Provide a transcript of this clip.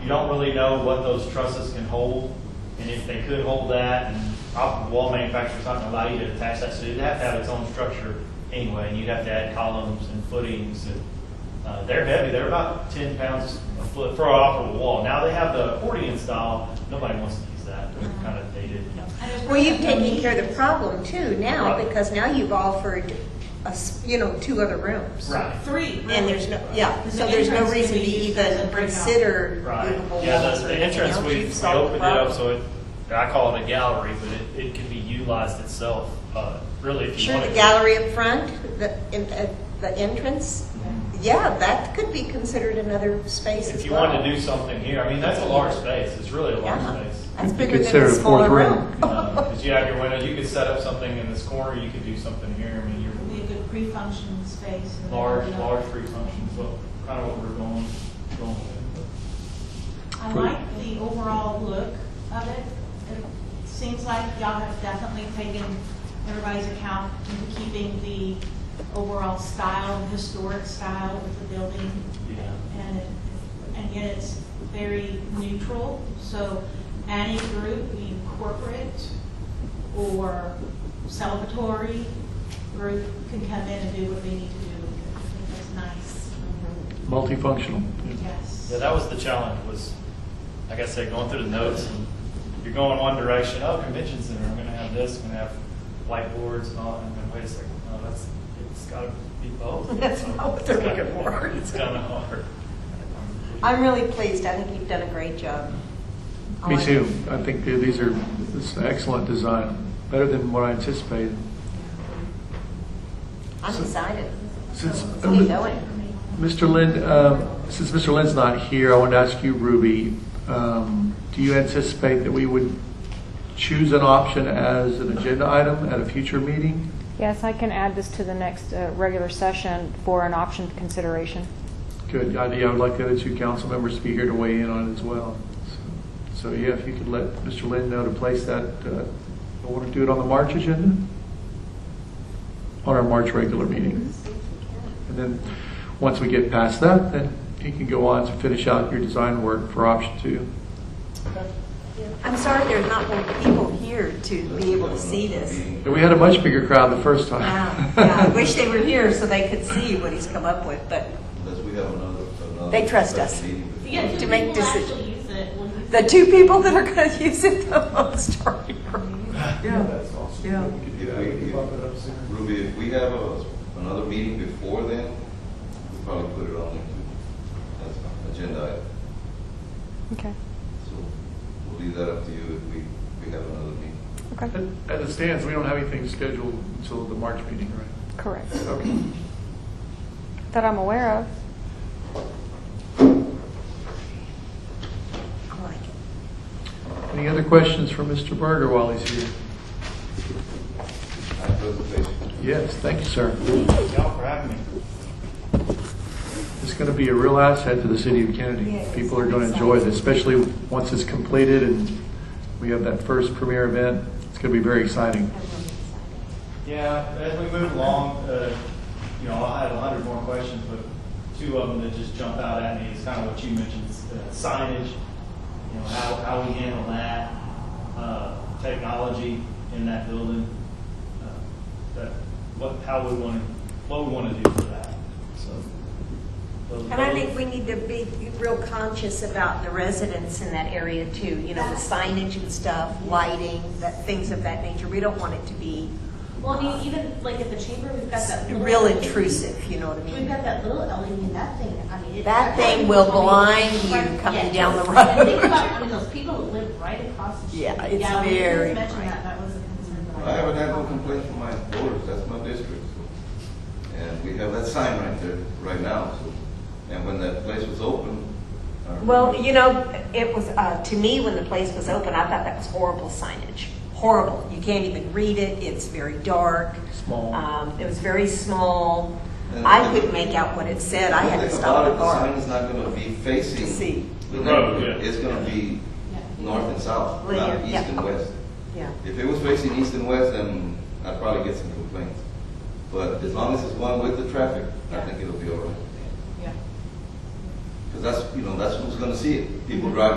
you don't really know what those trusses can hold, and if they could hold that, and op- wall manufacturer's not gonna allow you to attach that, so you'd have to have its own structure anyway, and you'd have to add columns and footings, and, uh, they're heavy, they're about ten pounds a foot for an operable wall. Now they have the accordion style, nobody wants to use that, they're Uh-huh. kind of dated. Well, you've taken care of the problem too now, Right. because now you've offered us, you know, two other rooms. Right. Three. And there's no, yeah, Because so the there's no entrance reason we to use even doesn't break out. consider Right, movable yeah, walls the, or the anything entrance, else. we, we You've solved opened the it up problem. so it, I call it a gallery, but it, it can be utilized itself, uh, really if you Sure, want. the it. gallery up front, the, in- at the entrance, yeah, that could be considered another space as If you well. wanted to do something here, I mean, that's a large space, it's really a large Yeah. space. That's You could bigger than consider a a fourth smaller room. room. Because you have your window, you could set up something in this corner, you could do something here, I mean, It'd you're be a good pre-functioning space. and- large, large free functions, well, kind of what we're going, going with. I like the overall look of it. It seems like y'all have definitely taken everybody's account into keeping the overall style, historic style of the building. Yeah. And, it- and yet it's very neutral, so any group, being corporate or celebratory group can come in and do what they need to do. I think that's nice. Multifunctional. Yes. Yeah, that was the challenge, was, like I said, going through the notes, and you're going one direction, oh, convention center, I'm gonna have this, I'm gonna have whiteboards and all, and then wait a second, no, that's, it's gotta be both. That's not what they're looking for. It's kinda hard. I'm really pleased, I think you've done a great job. I Me like too. it. I think that these are, this is an excellent design, better than what I anticipated. I'm excited. Since, uh, Let's get going. Mr. Lynn, um, since Mr. Lynn's not here, I want to ask you, Ruby, um, do you anticipate that we would choose an option as an agenda item at a future meeting? Yes, I can add this to the next uh, regular session for an option consideration. Good idea. I would like the other two council members to be here to weigh in on it as well. So, so, yeah, if you could let Mr. Lynn know to place that, uh, I want to do it on the March agenda? On our March regular meeting. And then, once we get past that, then you can go on to finish out your design work for option two. I'm sorry there's not more people here to be able to see this. And we had a much bigger crowd the first time. Wow, yeah, I wish they were here so they could see what he's come up with, but Unless we have another, another. They trust us. special meeting before- Yeah, To two make people decision- actually use it. We'll use the it. two people that are going to use it the most are here. Yeah. That's awesome. Yeah. If we- if- Ruby, if we have a, another meeting before then, we'll probably put it on the as an agenda item. Okay, So we'll leave that up to you if we, if we have another meeting. okay, As it stands, we don't have anything scheduled until the March meeting, right? correct. Okay. That I'm aware of. I like it. Any other questions for Mr. Berger while he's here? My presentation. Yes, thank you, sir. Y'all for having me. It's going to be a real asset to the city of Kennedy. Yes. People are going to enjoy it, especially once it's completed and we have that first premier event. It's going to be very exciting. Yeah, as we move along, uh, you know, I had a hundred more questions, but two of them that just jump out at me is kind of what you mentioned, uh, signage, you know, how, how we handle that, uh, technology in that building, uh, that, what, how we want to, what we want to do for that, so. those- And I those- think we need to be real conscious about the residents in that area too, you know, the signage and stuff, lighting, that, things of that nature. We don't want it to be Well, I e-, mean, even like at the chamber, we've got that. little- real intrusive, you know what I mean? We've got that little LED, that thing, I mean. it- That thing will blind you Right, coming yes. down the And think road. about, I mean, those people that live right across the street. Yeah, it's we didn't very Mention bright. that, that was a concern. that I haven't had no complaints from my voters, that's my district. so. And we have that sign right there, right now, so. And when that place was open. I remember- Well, you know, it was, uh, to me, when the place was open, I thought that was horrible signage. Horrible. You can't even read it. It's very dark. Small. Um, it was very small. And- I couldn't make out what it said. I had to Think stop about the it, sign car. is not gonna be To see. facing the The road, neighborhood. yeah. It's gonna be Yeah. north and south, Linear, not east yeah. and west. Yeah. If it was facing east and west, then I'd probably get some complaints. But as long as it's one with the traffic, I think it'll be all right. Yeah. Mm-hmm. Because that's, you know, that's who's gonna see it. People drive